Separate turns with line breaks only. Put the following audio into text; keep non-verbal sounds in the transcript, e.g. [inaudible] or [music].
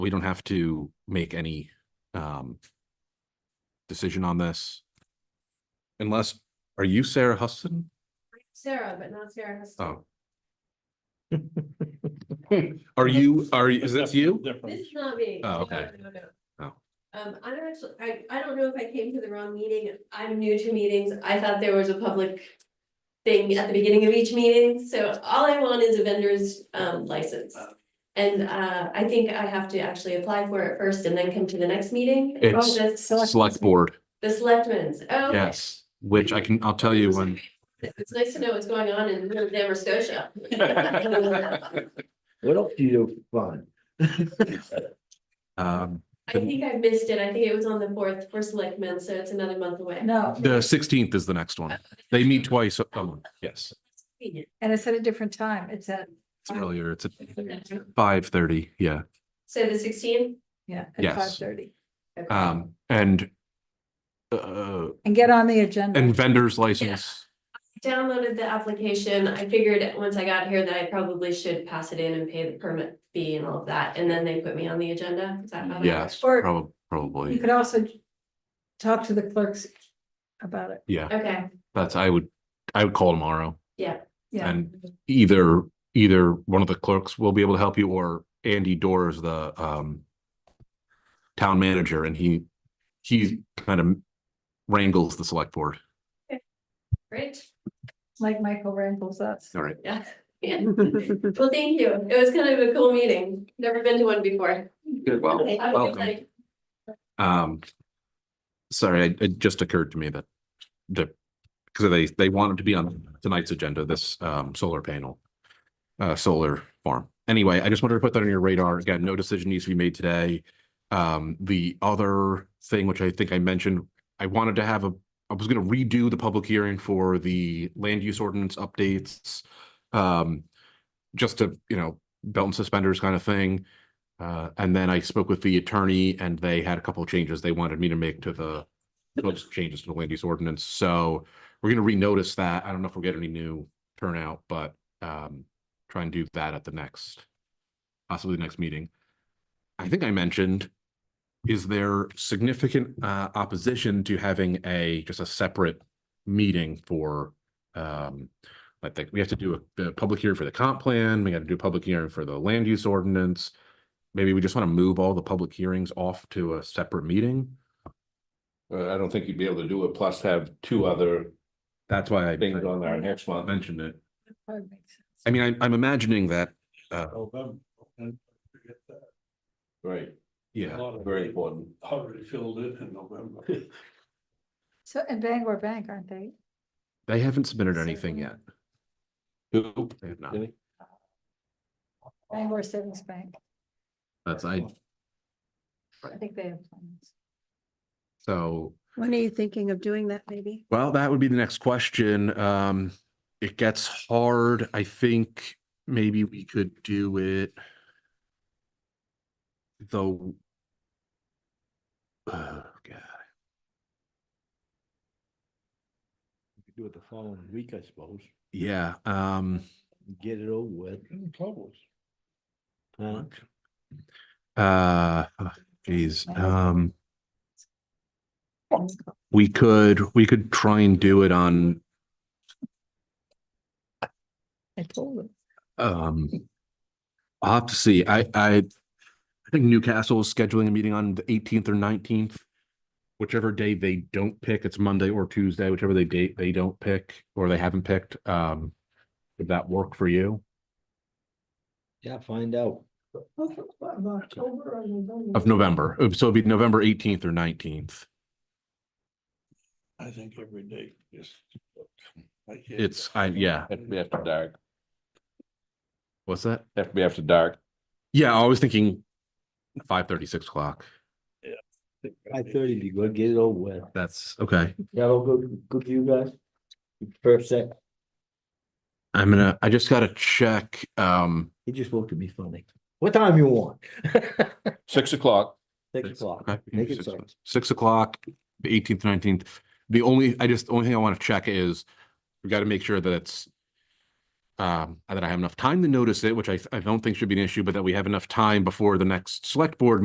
we don't have to make any um decision on this. Unless, are you Sarah Huston?
Sarah, but not Sarah Huston. [laughs]
Oh. Are you, are, is this you?
This is not me.
Oh,
No,
okay.
No, no.
Oh.
Um, I'm actually, I, I don't know if I came to the wrong meeting. I'm new to meetings. I thought there was a public thing at the beginning of each meeting, so all I want is a vendor's, um, license. And, uh, I think I have to actually apply for it first and then come to the next meeting.
It's
Oh, that's
Select board,
The selectmen's, oh. okay.
yes, which I can, I'll tell you when.
It's nice to know what's going on in
[laughs]
Nova Scotia.
What else do you find?
Um,
I think I missed it. I think it was on the fourth for selectmen, so it's another month away.
No,
the sixteenth is the next one. They meet twice a a month, yes.
Convenient.
and it's at a different time. It's at,
It's earlier, it's at five thirty, yeah.
So the sixteen?
yeah, at
Yes.
five thirty.
Um, and uh,
And get on the agenda.
and vendor's license,
Downloaded the application. I figured once I got here that I probably should pass it in and pay the permit fee and all of that, and then they put me on the agenda. Is that how that
yes,
works? Or-
prob-
You
probably,
could also talk to the clerks about it.
yeah,
Okay,
that's, I would, I would call tomorrow.
Yeah,
And either, either one of the clerks will be able to help you or Andy Dorr is the um. Town manager and he, he kind of wrangles the select board.
great.
like Michael Rambles us.
All right.
Yeah. [laughs] Yeah. Well, thank you. It was kind of a cool meeting. Never been to one before.
Good, well,
I was
welcome.
like,
Um. Sorry, it, it just occurred to me that the, because they, they want it to be on tonight's agenda, this um solar panel. Uh, solar farm. Anyway, I just wanted to put that on your radar. Again, no decision needs to be made today. Um, the other thing, which I think I mentioned, I wanted to have a, I was gonna redo the public hearing for the land use ordinance updates. Um, just to, you know, belt and suspenders kind of thing. Uh, and then I spoke with the attorney and they had a couple of changes they wanted me to make to the proposed changes to the land use ordinance. So we're gonna renotice that. I don't know if we'll get any new turnout, but um, try and do that at the next, possibly the next meeting. I think I mentioned, is there significant uh opposition to having a, just a separate meeting for um, I think we have to do a, a public hearing for the comp plan, we gotta do a public hearing for the land use ordinance. Maybe we just want to move all the public hearings off to a separate meeting.
Uh, I don't think you'd be able to do it, plus have two other
That's why I
things on our next
I
month.
mentioned it.
Probably makes sense.
I mean, I'm, I'm imagining that, uh,
November. and forget that.
Right,
A
yeah,
lot of
very
people
important.
Already filled in in November.
So, and Bangor Bank, aren't they?
they haven't submitted anything yet.
[laughs] Who?
They have not.
Really?
Bangor Savings Bank.
That's I,
I think they have plans.
so,
When are you thinking of doing that, maybe?
well, that would be the next question. Um, it gets hard. I think maybe we could do it. Though. Oh, God.
You could Do it the following week, I suppose.
Yeah, um.
Get it over with.
Close.
Huh?
Uh, oh, geez, um. uh, We could, we could try and do it on,
I told them.
um. I'll have to see. I, I, I think Newcastle is scheduling a meeting on the eighteenth or nineteenth. Whichever day they don't pick, it's Monday or Tuesday, whichever they date, they don't pick or they haven't picked, um. Would that work for you?
Yeah, find out.
Of November, Uh, so it'd be November eighteenth or nineteenth.
I think every day, just. I can't-
It's, I, yeah,
Have to be after dark,
what's that?
have to be after dark.
Yeah, I was thinking five thirty, six o'clock.
Five thirty, be good, get it over with.
That's okay.
Yeah, well, good, good for you guys. Perfect.
I'm gonna, I just gotta check, um.
He just looked at me funny. What time you want? [laughs]
Six o'clock,
Six o'clock.
okay,
Make it
six
so.
o'clock. Six o'clock, the eighteenth, nineteenth. The only, I just, the only thing I wanna check is, we gotta make sure that it's. um, that I have enough time to notice it, which I, I don't think should be an issue, but that we have enough time before the next select board